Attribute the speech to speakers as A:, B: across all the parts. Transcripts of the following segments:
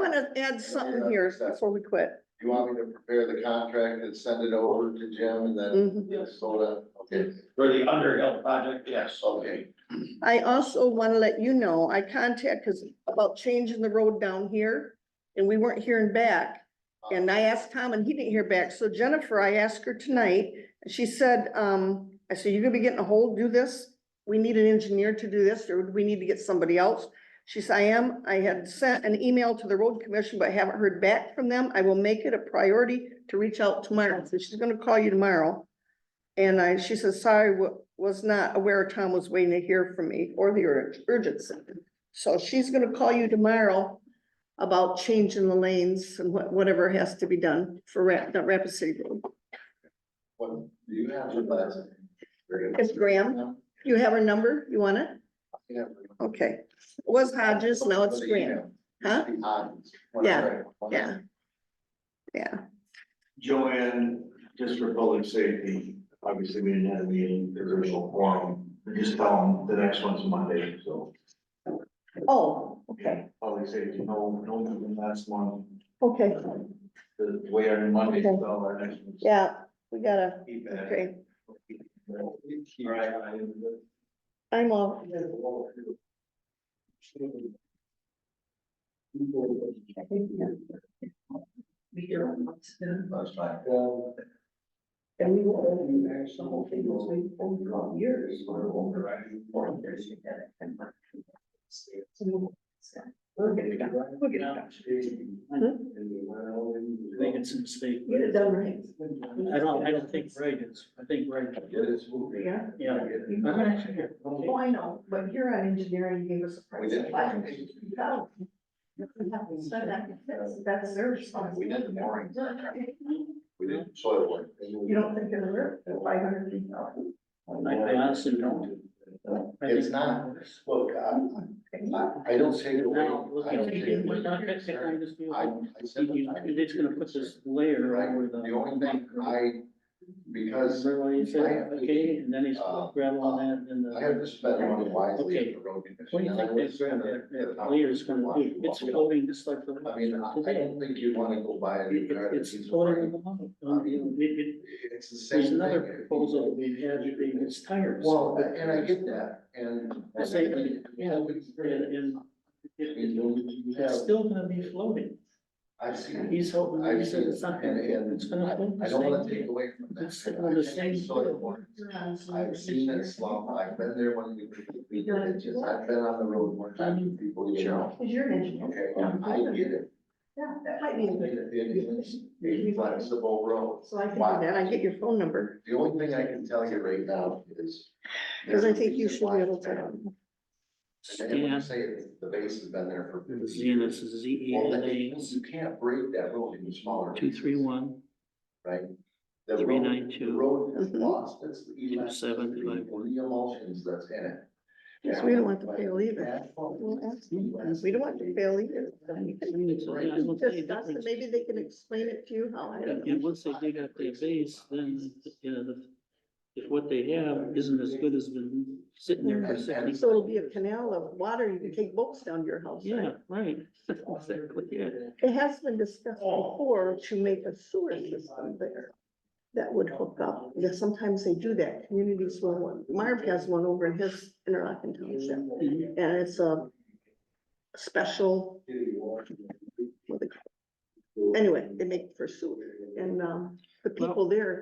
A: gotta add something here before we quit.
B: You want me to prepare the contract and send it over to Jim and then
A: Mhm.
B: Yes, soda, okay,
C: For the Underhill project, yes.
B: okay.
A: I also want to let you know, I contacted us about changing the road down here and we weren't hearing back. And I asked Tom and he didn't hear back. So Jennifer, I asked her tonight, and she said, um, I said, you're gonna be getting a hold, do this? We need an engineer to do this or do we need to get somebody else? She said, I am, I had sent an email to the road commission, but haven't heard back from them. I will make it a priority to reach out tomorrow. So she's gonna call you tomorrow. And I, she says, sorry, wa- was not aware Tom was waiting to hear from me or the ur- urgency. So she's gonna call you tomorrow about changing the lanes and what, whatever has to be done for Rap, the Rapid City Road.
B: What, do you have your last? name? Very good.
A: It's Graham. You have her number? You want it?
B: Yeah.
A: Okay. It was Hodges, now it's Graham, huh?
B: Hodges.
A: Yeah, yeah. Yeah,
D: Joanne, just for public safety, obviously we didn't have a meeting, the original forum, just tell them the next one's Monday, so.
A: oh, okay,
D: Public safety, no, no meeting last month,
A: okay,
D: the way our Monday, so our next one's.
A: yeah, we gotta,
D: feedback.
A: okay,
D: All right, I-
A: I'm all,
B: That's fine.
E: And we will only manage the whole thing was we only got years or over, right? Four years. you get it, and we're- We'll get it done. We'll get it done.
C: Making some mistake.
E: Get it done right.
C: I don't, I don't think Ray is. I think Ray,
B: It is moving.
E: Yeah.
C: yeah. I'm gonna actually hear.
E: Oh, I know, but here on engineering, you gave us a
B: We
E: price
B: did.
E: of five hundred and thousand. We haven't said that, that's, that's their
B: We did the
E: responsibility.
B: mooring.
E: You
B: We did soil work.
E: don't think they're worth the five hundred and thousand?
C: I I honestly don't. I think-
B: It's not. Look, I, I don't take it away.
C: Now, look,
B: I don't take it away.
C: we're not fixing this deal.
B: I, I said.
C: You- you- It's gonna put this layer
B: Right,
C: over the.
B: the only thing I, because
C: Remember when you said,
B: I-
C: okay, and then he's
B: uh,
C: gravel on that, and then the.
B: I have to spend money wisely
C: Okay.
B: in the road. condition,
C: What do you
B: and I
C: think
B: would
C: that,
B: spend
C: that,
B: it
C: that layer is gonna do? It's floating just like the.
B: I mean, I I don't think you wanna go buy a new
C: It-
B: car.
C: it-
B: that's
C: It's
B: used
C: floating in
B: for-
C: the money. Um, it- it-
B: It's the same
C: There's
B: thing.
C: another proposal we had, it's tires.
B: Well, and I get that, and.
C: I say, I mean, yeah,
B: we-
C: And, and
B: I
C: it-
B: mean, you- you
C: it's
B: have-
C: still gonna be floating.
B: I've seen. it.
C: He's hoping,
B: I've
C: he said
B: seen
C: it's not
B: it, and-
C: gonna,
B: and
C: it's gonna float
B: I
C: the
B: I don't wanna
C: same
B: take
C: way.
B: away from that.
C: It's sitting on the
B: I've seen
C: same
B: soil
C: field.
B: work. I've seen it slump, I've been there when we, we did it, just, I've been on the road more times than people, you know.
E: Cause you're an
B: Okay,
E: engineer.
B: I get it.
E: Yeah, that might
B: I
E: be.
B: mean, it is a flexible road.
E: So I can do
B: Wow.
A: then I get your phone number,
B: The only thing I can tell you right now is.
A: because I think you should be able to. um,
B: And then when you
C: Stan,
B: say it, the base has been there for.
C: Zenus is Z E
B: Well,
C: N
B: then
C: A,
B: You can't break that road into smaller.
C: two, three, one,
B: Right? The road- The
C: 392.
B: road has
A: Mhm.
B: lost its elasticity,
C: 2751.
B: the emulsions that's in it.
A: Yes, we don't want to fail either. We'll ask
B: either.
A: We don't want to fail either. Discuss it. Maybe
C: Maybe
A: they can explain it to you how, I don't
C: And
A: know.
C: once they dig up their base, then, you know, the- if what they have isn't as good as been sitting there for sixty.
A: So it'll be a canal of water, you can take boats down to your house.
C: Yeah, right. Exactly, yeah.
A: It has been discussed
B: Oh.
A: before to make a sewer system there that would hook up. Yeah, sometimes they do that. Communities will, want- Marv has one over in his Interlochen Township.
C: Mhm.
A: And it's a special, what they call it. anyway, they make for sewer. And, um, the people there,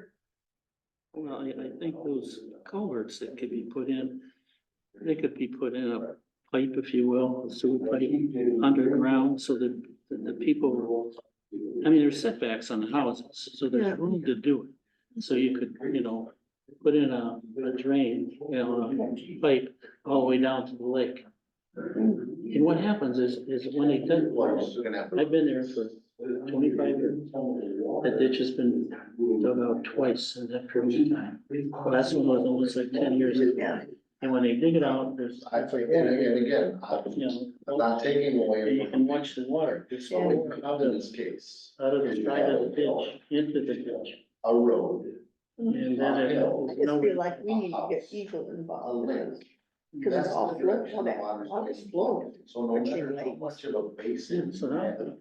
C: Well, I, I think those culverts that could be put in, they could be put in a pipe, if you will, a sewer pipe underground, so that, that the people, I mean, there's setbacks on the houses, so
A: Yeah.
C: there's room to do it. So you could, you know, put in a, a drain, you know, a pipe all the way down to the lake. And what happens is, is when they dig
B: Well,
C: wells,
B: you're gonna have to-
C: I've been there for twenty-five years, that ditch has been dug out twice in that period of time. Last one was almost like ten years ago. And when they dig it out, there's,
B: I think, and again, again, I'm
C: you
B: I'm
C: know,
B: not taking
C: and
B: away.
C: you can watch the water just
B: So
C: going
B: we
C: out
B: found in
C: of
B: this
C: this,
B: case,
C: out of the side of the ditch, into the ditch.
B: a road,
C: And then it,
A: I
C: goes
A: just feel
C: nowhere.
A: like we need to get Eagle
B: a
A: involved.
B: lake.
A: Because it's
B: That's
A: all
B: the
A: flood,
B: direction
A: all
B: the
A: that,
B: water's
A: all this
B: going.
A: flow.
B: So no
A: Okay,
B: matter how
A: lakes.
B: much of a basin
C: So now-
B: that